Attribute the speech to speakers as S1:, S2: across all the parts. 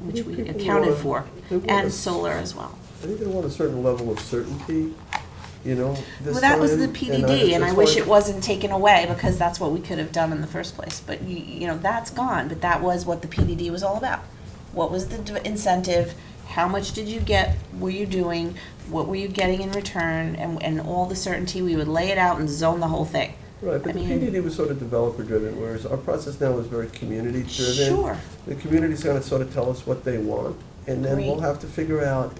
S1: which we
S2: People
S1: accounted
S2: want-
S1: for,
S2: they want
S1: and
S2: us-
S1: solar as well.
S2: I think they want a certain level of certainty, you know, this
S1: Well, that was the
S2: time,
S1: PDD, and I
S2: that's
S1: wish
S2: why-
S1: it wasn't taken away, because that's what we could have done in the first place. But you, you know, that's gone, but that was what the PDD was all about. What was the d- incentive? How much did you get? Were you doing? What were you getting in return? And, and all the certainty, we would lay it out and zone the whole thing.
S2: Right, but
S1: I
S2: the
S1: mean-
S2: PDD was sort of developer-driven, whereas our process now is very community-driven.
S1: Sure,
S2: The community's gonna sort of tell us what they want, and then we'll
S1: Agreed.
S2: have to figure out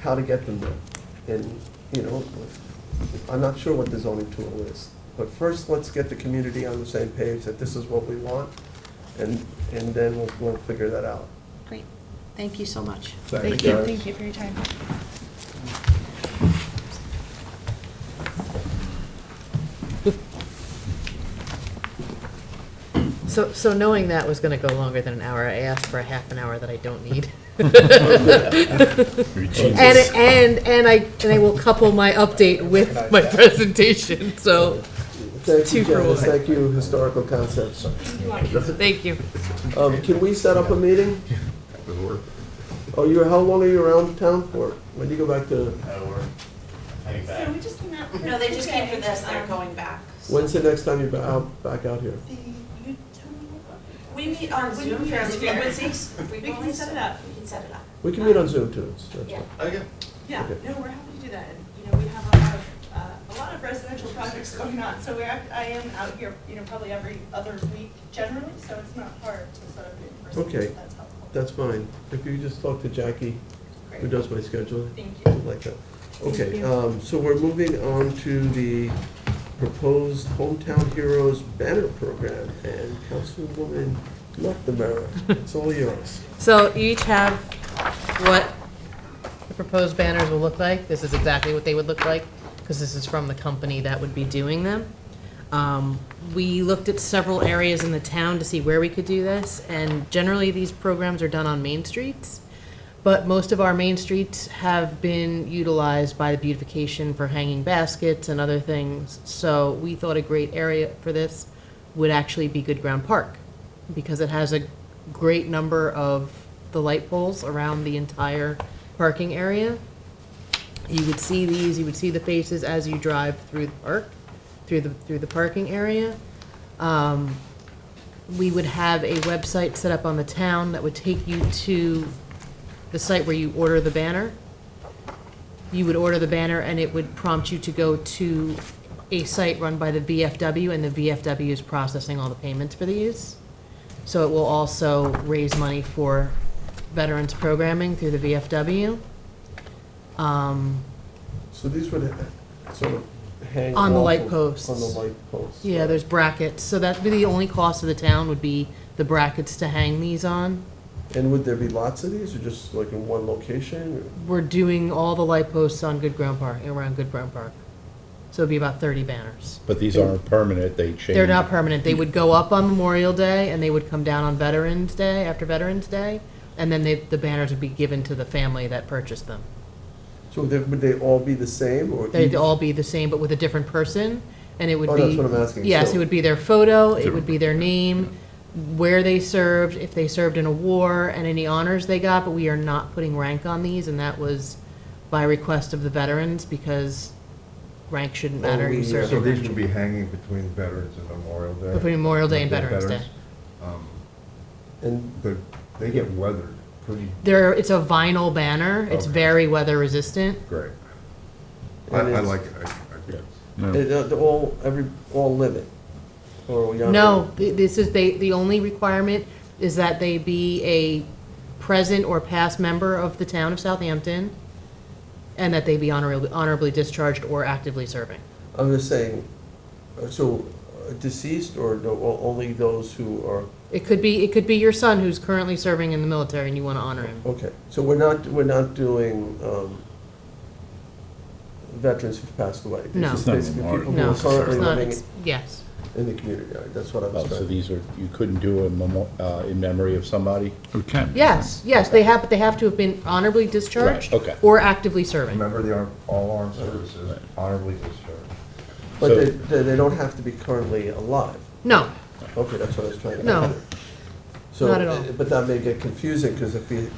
S2: how to get them there. And, you know, I'm not sure what the zoning tool is, but first, let's get the community on the same page that this is what we want, and, and then we'll, we'll figure that out.
S1: great. Thank you so much.
S3: Thank you, thank you for your time.
S4: So, so knowing that was gonna go longer than an hour, I asked for a half an hour that I don't need. And, and, and I, and I will couple my update with my presentation, so,
S2: Thank you,
S4: two for
S2: Janice,
S4: one.
S2: thank you, Historical Concepts.
S4: thank you.
S2: Um, can we set up a meeting? Oh, you're, how long are you around town for? When do you go back to,
S5: So we just came out. for- Okay. Um,
S1: going back.
S2: when's the next time you're ba- out, back out here?
S5: the- you tell me about it.
S1: We meet on
S5: Zoom fairly
S1: We
S5: can set it up.
S1: We can set it up.
S2: We can meet on Zoom too, it's- that's
S5: Yeah.
S2: fine.
S5: Yeah,
S2: Okay.
S5: no, we're happy to do that. And, you know, we have a lot of, uh, a lot of residential projects going on, so we're, act- I am out here, you know, probably every other week generally, so it's not hard to set up in person.
S2: Okay.
S5: so That's helpful.
S2: That's fine. If you just talk to Jackie, who
S5: Great.
S2: does my scheduling,
S5: Thank you.
S2: like that. Okay, um, so we're moving on to the proposed Hometown Heroes banner program, and Councilwoman McNamara, it's all yours.
S4: So you each have what the proposed banners will look like. This is exactly what they would look like, because this is from the company that would be doing them. Um, We looked at several areas in the town to see where we could do this, and generally, these programs are done on main streets. But most of our main streets have been utilized by the beautification for hanging baskets and other things. So we thought a great area for this would actually be Good Ground Park because it has a great number of the light poles around the entire parking area. You would see these, you would see the faces as you drive through the park, through the, through the parking area. Um, We would have a website set up on the town that would take you to the site where you order the banner. You would order the banner and it would prompt you to go to a site run by the VFW and the VFW is processing all the payments for these. So it will also raise money for veterans programming through the VFW. Um,
S2: So these would uh, sort of hang
S4: On the
S2: off
S4: light
S2: of-
S4: posts.
S2: On the light posts.
S4: Yeah, there's brackets, so that'd be the only cost of the town would be the brackets to hang these on.
S2: And would there be lots of these, or just like in one location?
S4: We're doing all the light posts on Good Ground Park, around Good Ground Park. So it'd be about thirty banners.
S3: But these aren't permanent, they change.
S4: They're not permanent. They would go up on Memorial Day and they would come down on Veterans Day, after Veterans Day. And then they, the banners would be given to the family that purchased them.
S2: So they- would they all be the same, or?
S4: They'd
S2: each-
S4: all be the same, but with a different person, and it would be.
S2: Oh, that's what I'm asking,
S4: Yes,
S2: so-
S4: it would be their photo, it would be their name, where they served, if they served in a war, and any honors they got, but we are not putting rank on these, and that was by request of the veterans, because rank shouldn't matter,
S2: Oh,
S4: you
S2: we-
S4: served.
S6: So these would be hanging between Veterans and Memorial Day?
S4: Between Memorial Day and Veterans Day.
S6: Um,
S2: And
S6: But they get weathered pretty
S4: There, it's a vinyl banner, it's
S6: Okay.
S4: very weather resistant.
S6: great.
S2: And
S6: I, I
S2: it's-
S6: like it, I, I guess.
S2: They- They're they're all, every, all limit? Or we got?
S4: No, th- this is, they, the only requirement is that they be a present or past member of the town of Southampton, and that they be honorably, honorably discharged or actively serving.
S2: I'm just saying, uh, so uh, deceased or no- o- only those who are,
S4: It could be, it could be your son who's currently serving in the military and you want to honor him.
S2: okay. So we're not, we're not doing um, veterans who've passed away? These
S4: No.
S2: are
S4: It's
S3: not a
S2: Basically
S3: memorial.
S2: people who
S4: No,
S2: are
S3: it's
S2: currently
S4: It's not,
S2: living
S4: ex- yes.
S2: in the community, All right, that's what I
S3: Oh,
S2: was
S3: So
S2: trying.
S3: these are, you couldn't do a memo, uh, in memory of somebody?
S7: It can.
S4: Yes, yes, they have, but they have to have been honorably discharged
S3: okay.
S4: or actively serving.
S6: Remember the arm, all armed services honorably discharged.
S2: But
S3: So-
S2: they, they they don't have to be currently alive?
S4: No,
S2: Okay, that's what I was trying to.
S4: No.
S2: So, eh,
S4: Not at all.
S2: But that may get confusing, because if you,